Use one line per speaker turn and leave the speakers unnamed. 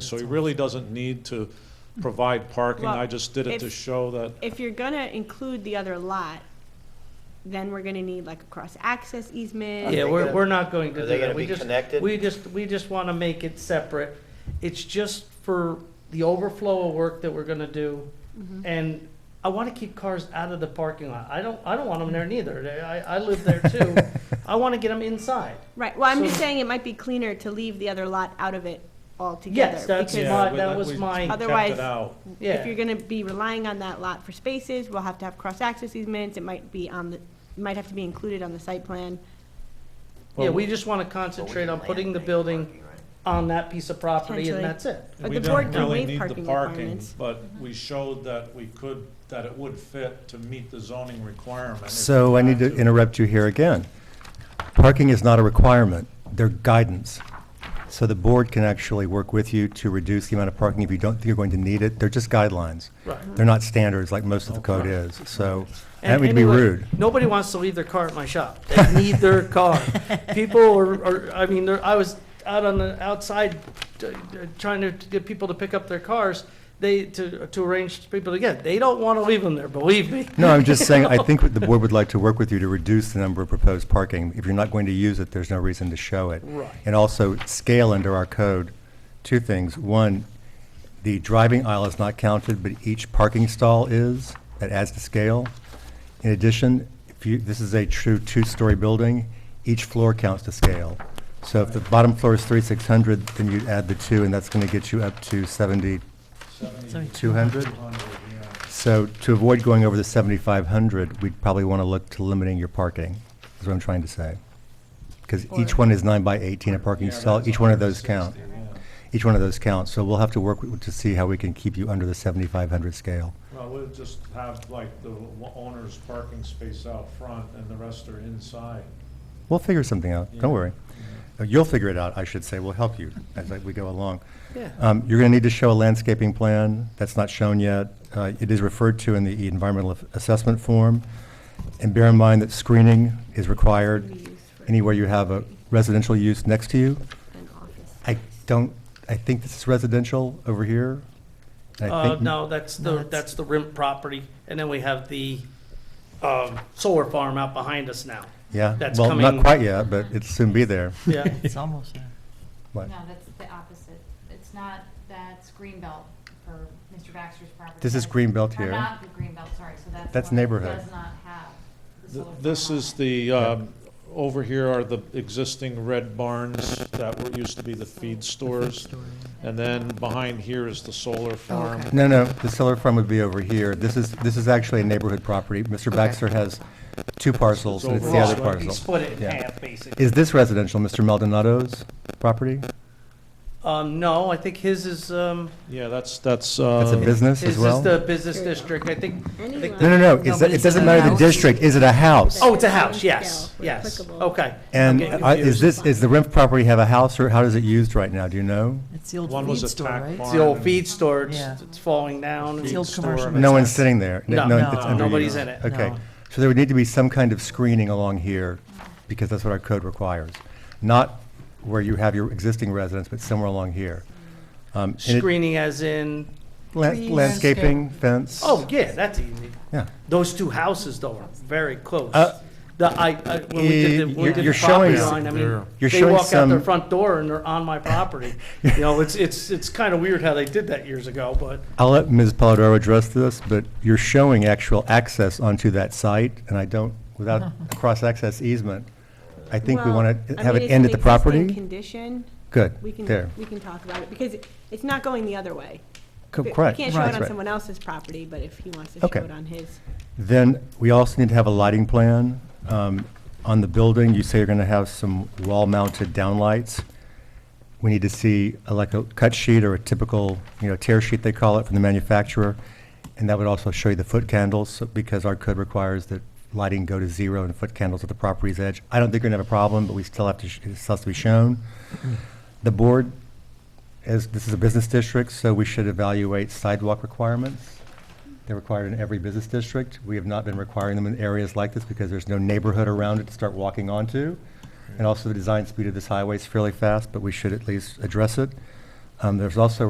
So he really doesn't need to provide parking, I just did it to
Well, if-
show that,
If you're gonna include the other lot, then we're gonna need like a cross-access easement.
they
Yeah, we're,
gonna-
we're not going to
are
do
they gonna
that. We
be
just-
connected?
We just, we just want to make it separate. It's just for the overflow of work that we're gonna do. And I want to keep cars out of the parking lot. I don't, I don't want them there neither. They- I, I live there too. I want to get them inside.
Right, well, I'm just
So-
saying it might be cleaner to leave the other lot out of it altogether.
Yes, that's
because
yeah,
my,
we-
that
that
was
we-
my,
kept
Otherwise,
it out.
yeah.
If you're gonna be relying on that lot for spaces, we'll have to have cross-access easements, it might be on the, might have to be included on the site plan.
Yeah, we just want to concentrate on putting the building on that piece of property
Potentially.
and that's it.
But
We
the
don't
board can
really
waive
need the
parking
parking,
requirements.
but we showed that we could, that it would fit to meet the zoning requirement. if
So
we
I need
had
to interrupt you here again. Parking is not a requirement, they're guidance. So the board can actually work with you to reduce the amount of parking if you don't think you're going to need it. They're just guidelines.
Right.
They're not standards like most of the code is, so I
And
don't mean to be
anyway,
rude.
Nobody wants to leave their car at my shop. They need their car. People are, are I mean, they're- I was out on the outside uh, trying to get people to pick up their cars. They, to, to arrange people to get, they don't want to leave them there, believe me.
No, I'm just saying, I think what the board would like to work with you to reduce the number of proposed parking. If you're not going to use it, there's no reason to show it.
Right.
And also scale under our code, two things. One, the driving aisle is not counted, but each parking stall is, that adds to scale. In addition, if you, this is a true two-story building, each floor counts to scale. So if the bottom floor is thirty-six hundred, then you'd add the two, and that's gonna get you up to seventy-two hundred?
200, yeah.
So to avoid going over the 7,500, we'd probably want to look to limiting your parking, is what I'm trying to say. Because each one is nine by 18 a parking
Yeah,
stall,
that's
each one of those count.
160, yeah.
Each one of those counts, so we'll have to work with- to see how we can keep you under the 7,500 scale.
Well, we'll just have like the w- owner's parking space out front and the rest are inside.
We'll figure something out,
Yeah.
don't worry. Uh, You'll figure it out, I should say, we'll help you as like, we go along.
Yeah.
Um, You're going to need to show a landscaping plan, that's not shown yet. Uh, It is referred to in the environmental aff- assessment form. And bear in mind that screening is required anywhere you have a residential use next to you.
An office.
I don't, I think this is residential over here. I
Uh,
think-
no, that's the, that's the rim property. And then we have the, um, solar farm out behind us now.
Yeah,
that's
well, not
coming-
quite yet, but it'll soon be there.
Yeah.
It's almost uh, there.
What?
No, that's the opposite. It's not, that's Greenbelt for Mr. Baxter's property.
This is
That-
Greenbelt
Or
here.
not the Greenbelt, sorry, so that's. the
That's
one that
neighborhood.
Does not have the
Th-
solar.
This
farm on
is
it.
the, um, over here are the existing red barns that were, used to be the feed stores. And then behind here is the solar farm.
No, no, the solar farm would be over here. This is, this is actually a neighborhood property. Mr. Baxter has two parcels, and it's the other
Overall,
He
parcel.
split it in
Yeah.
half, basically.
Is this residential, Mr. Maldonado's property?
Um, no, I think his is, um,
Yeah, that's, that's,
That's a
uh,
business
Is
as
this
well?
the
No,
business district? I think, I think-
Anyone.
no, no, is that-
but
it
is it
doesn't
a
matter the
house?
district, is it a house?
oh, it's a house, yes,
Scale,
yes,
applicable.
okay.
And
I'm getting
uh, is
confused.
this, is the Renf property have a house, or how is it used right now, do you know?
It's the old
One
feed
was
store,
attacked
right?
by-
It's the old feed store, it's,
Yeah.
it's falling down.
It's the old
store.
commercial.
No one's
business.
sitting there? N-
No,
it's
no,
under you.
nobody's in it.
Okay,
No.
so there would need to be some kind of screening along here, because that's what our code requires. Not where you have your existing residence, but somewhere along here. Um, and it-
Screening as in,
la-
Trees,
Landscaping,
landscape.
fence?
oh, yeah, that's easy.
Yeah.
Those two houses though are very close.
Uh, eh,
The, I, I, when we did the, when we
You're-
did the
you're showing
property
us-
line, I mean,
You're
they
showing
walk out their
some-
front door and they're on my property. You know, it's, it's, it's kind of weird how they did that years ago, but
I'll let Ms. Polidoro address this, but you're showing actual access onto that site, and I don't, without a cross-access easement, I think we
Well,
want to
I
have
mean,
it
it's
end
an
at the
existing
property.
Condition,
Good,
we can,
there.
we can talk about it, because it- it's not going the other way.
Co-
We-
Correct.
We can't show
That's
it on
right.
someone else's property, but if he wants to show
Okay.
it on his.
Then, we also need to have a lighting plan. Um, On the building, you say you're going to have some wall-mounted downlights. We need to see uh, like a cut sheet or a typical, you know, tear sheet, they call it, from the manufacturer. And that would also show you the foot candles, so- because our code requires that lighting go to zero and foot candles at the property's edge. I don't think we're going to have a problem, but we still have to, sh- it still has to be shown. The board, as, this is a business district, so we should evaluate sidewalk requirements. They're required in every business district. We have not been requiring them in areas like this because there's no neighborhood around it to start walking onto. And also, the design speed of this highway is fairly fast, but we should at least address it. Um, There's also